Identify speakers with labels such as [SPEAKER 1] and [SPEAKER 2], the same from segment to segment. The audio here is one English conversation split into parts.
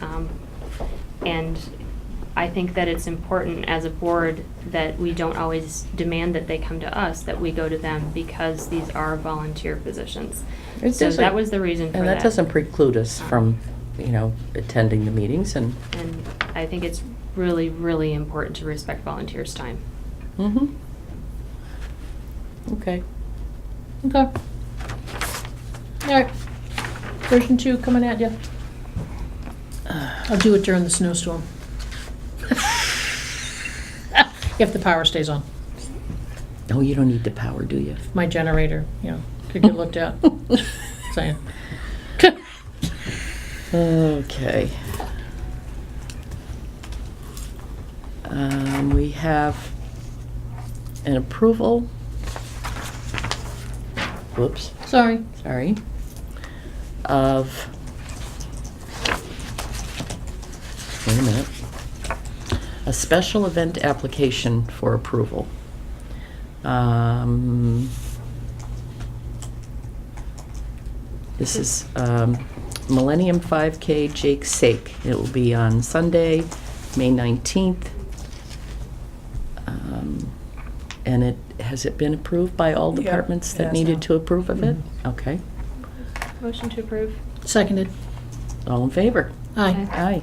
[SPEAKER 1] Um, And I think that it's important as a board that we don't always demand that they come to us, that we go to them because these are volunteer positions.
[SPEAKER 2] It
[SPEAKER 1] So
[SPEAKER 2] doesn't-
[SPEAKER 1] that was the reason for that.
[SPEAKER 2] And that doesn't preclude us from, you know, attending the meetings and,
[SPEAKER 1] And I think it's really, really important to respect volunteers' time.
[SPEAKER 2] hmm
[SPEAKER 1] Mm-hmm.
[SPEAKER 2] Okay. Okay.
[SPEAKER 3] Alright, version two coming at you. I'll do it during the snowstorm. If the power stays on,
[SPEAKER 2] Oh, you don't need the power, do you?
[SPEAKER 3] my generator, you know, could get looked at, saying.
[SPEAKER 2] Okay. Um, we have an approval. Whoops,
[SPEAKER 3] Sorry,
[SPEAKER 2] sorry. Of. Wait a minute. A special event application for approval. Um, This is um, Millennium 5K Jake Sake. It will be on Sunday, May 19th. Um, And it, has it been approved by all
[SPEAKER 4] Yeah,
[SPEAKER 2] departments
[SPEAKER 4] it
[SPEAKER 2] that
[SPEAKER 4] has
[SPEAKER 2] needed
[SPEAKER 4] now.
[SPEAKER 2] to approve of it? Okay.
[SPEAKER 1] Motion to approve.
[SPEAKER 3] seconded,
[SPEAKER 2] All in favor?
[SPEAKER 3] aye.
[SPEAKER 2] Aye.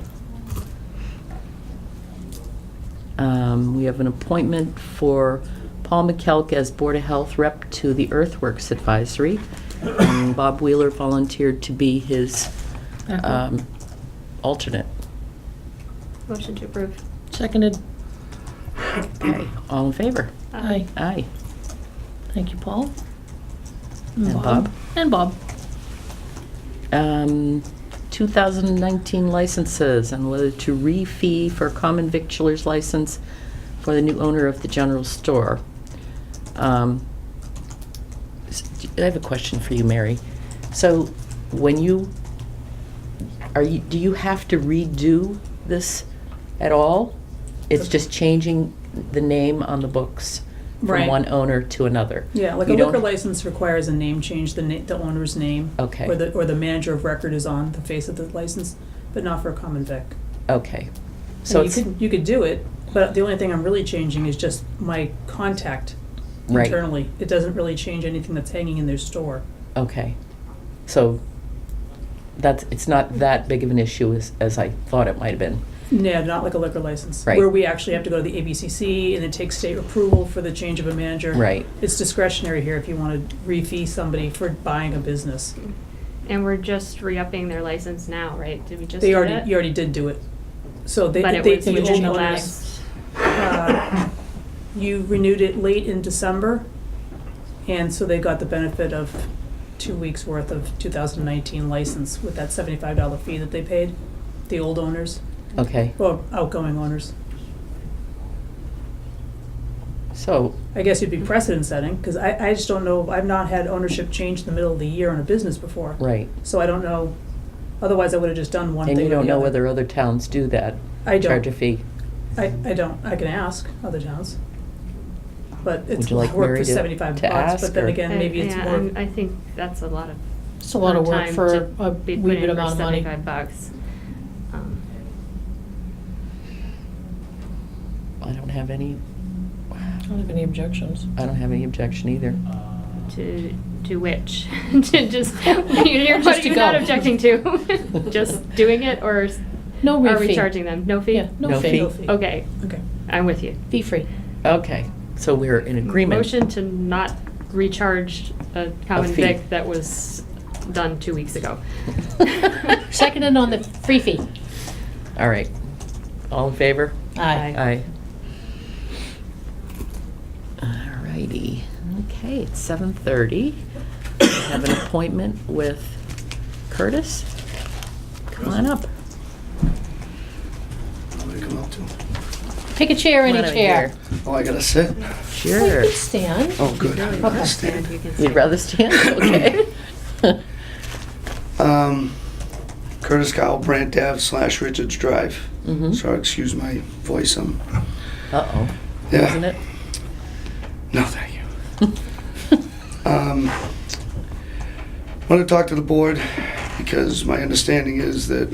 [SPEAKER 2] Um, We have an appointment for Paul McKelk as Board of Health Rep to the Earthworks Advisory. And Bob Wheeler volunteered to be his um, alternate.
[SPEAKER 1] Motion to approve.
[SPEAKER 3] Seconded,
[SPEAKER 2] Okay, all in favor?
[SPEAKER 3] aye,
[SPEAKER 2] Aye.
[SPEAKER 3] thank you, Paul.
[SPEAKER 2] And Bob.
[SPEAKER 3] And Bob,
[SPEAKER 2] Um, 2019 licenses and whether to re-fee for common victualer's license for the new owner of the general store. Um, s- I have a question for you, Mary. So when you, are you, do you have to redo this at all? It's just changing the name on the books from
[SPEAKER 4] Right.
[SPEAKER 2] one owner to another?
[SPEAKER 4] Yeah, like a
[SPEAKER 2] You don't-
[SPEAKER 4] liquor license requires a name change, the na- the owner's name.
[SPEAKER 2] Okay.
[SPEAKER 4] Or the, or the manager of record is on the face of the license, but not for a common vic.
[SPEAKER 2] Okay. So
[SPEAKER 4] So you
[SPEAKER 2] it's,
[SPEAKER 4] could, you could do it, but the only thing I'm really changing is just my contact
[SPEAKER 2] Right.
[SPEAKER 4] internally. It doesn't really change anything that's hanging in their store.
[SPEAKER 2] Okay, so that's, it's not that big of an issue as, as I thought it might have been.
[SPEAKER 4] No, not like a liquor license.
[SPEAKER 2] Right.
[SPEAKER 4] Where we actually have to go to the ABCC and it takes state approval for the change of a manager.
[SPEAKER 2] Right.
[SPEAKER 4] It's discretionary here if you want to re-fee somebody for buying a business.
[SPEAKER 1] Um, And we're just re-upping their license now, right? Did we just
[SPEAKER 4] They
[SPEAKER 1] do
[SPEAKER 4] already,
[SPEAKER 1] that?
[SPEAKER 4] you already did do it. So they,
[SPEAKER 1] But
[SPEAKER 4] they,
[SPEAKER 1] it
[SPEAKER 4] the
[SPEAKER 1] was
[SPEAKER 4] old
[SPEAKER 1] within the
[SPEAKER 4] owners-
[SPEAKER 1] last,
[SPEAKER 4] Uh, You renewed it late in December, and so they got the benefit of two weeks' worth of 2019 license with that $75 fee that they paid, the old owners,
[SPEAKER 2] Okay,
[SPEAKER 4] or outgoing owners.
[SPEAKER 2] so,
[SPEAKER 4] I guess
[SPEAKER 1] Mm-hmm.
[SPEAKER 4] it'd be precedent setting, because I, I just don't know, I've not had ownership change in the middle of the year in a business before.
[SPEAKER 2] right,
[SPEAKER 4] So I don't know, otherwise I would have just done one thing
[SPEAKER 2] and
[SPEAKER 4] or
[SPEAKER 2] you
[SPEAKER 4] the
[SPEAKER 2] don't know
[SPEAKER 4] other.
[SPEAKER 2] whether other towns do that?
[SPEAKER 4] I
[SPEAKER 2] Charge
[SPEAKER 4] don't.
[SPEAKER 2] a fee?
[SPEAKER 4] I, I don't, I can ask other towns. But
[SPEAKER 2] Would
[SPEAKER 4] it's
[SPEAKER 2] you like
[SPEAKER 4] work
[SPEAKER 2] Mary
[SPEAKER 4] for
[SPEAKER 2] to-
[SPEAKER 4] 75
[SPEAKER 2] to
[SPEAKER 4] bucks,
[SPEAKER 2] ask,
[SPEAKER 4] but then
[SPEAKER 2] or-
[SPEAKER 4] again, maybe it's
[SPEAKER 1] Uh, yeah,
[SPEAKER 4] more,
[SPEAKER 1] and I think that's a lot of.
[SPEAKER 3] it's a lot of work
[SPEAKER 1] time
[SPEAKER 3] for
[SPEAKER 1] to
[SPEAKER 3] a
[SPEAKER 1] be
[SPEAKER 3] wee
[SPEAKER 1] put in
[SPEAKER 3] bit
[SPEAKER 1] for
[SPEAKER 3] amount of money.
[SPEAKER 1] Seventy-five bucks. Um,
[SPEAKER 2] I don't have any,
[SPEAKER 3] I don't have any objections.
[SPEAKER 2] I don't have any objection either.
[SPEAKER 1] To, to which? To just, you're,
[SPEAKER 3] Just
[SPEAKER 1] what are
[SPEAKER 3] to
[SPEAKER 1] you not
[SPEAKER 3] go.
[SPEAKER 1] objecting to? Just doing it or s-
[SPEAKER 3] No
[SPEAKER 1] are
[SPEAKER 3] re-fee.
[SPEAKER 1] we charging them? No fee?
[SPEAKER 3] Yeah, no
[SPEAKER 2] No
[SPEAKER 3] fee,
[SPEAKER 2] fee.
[SPEAKER 4] fee.
[SPEAKER 1] Okay,
[SPEAKER 4] okay.
[SPEAKER 1] I'm with you.
[SPEAKER 3] fee free.
[SPEAKER 2] Okay, so we're in agreement?
[SPEAKER 1] Motion to not recharge a common
[SPEAKER 2] fee.
[SPEAKER 1] vic that was done two weeks ago.
[SPEAKER 3] Seconded on the free fee.
[SPEAKER 2] All right, all in favor? Aye.
[SPEAKER 3] Aye.
[SPEAKER 2] All righty, okay, it's 7:30. I Have an appointment with Curtis? Come on up.
[SPEAKER 5] I'm gonna come out too.
[SPEAKER 3] Pick a chair,
[SPEAKER 2] Come
[SPEAKER 3] any
[SPEAKER 2] on over
[SPEAKER 3] chair.
[SPEAKER 5] Oh, I gotta sit?
[SPEAKER 2] here. Sure.
[SPEAKER 3] Well, you could stand.
[SPEAKER 5] Oh, good. I
[SPEAKER 1] Really
[SPEAKER 5] gotta
[SPEAKER 1] good.
[SPEAKER 5] stand.
[SPEAKER 1] You can
[SPEAKER 2] You'd
[SPEAKER 1] see.
[SPEAKER 2] rather stand, okay?
[SPEAKER 5] Um, Curtis Kyle, Brant Ave slash Richards Drive.
[SPEAKER 2] Mhm.
[SPEAKER 5] Sorry, excuse my voice, I'm,
[SPEAKER 2] Uh-oh,
[SPEAKER 5] yeah.
[SPEAKER 2] isn't it?
[SPEAKER 5] No, thank you. um, I want to talk to the board because my understanding is that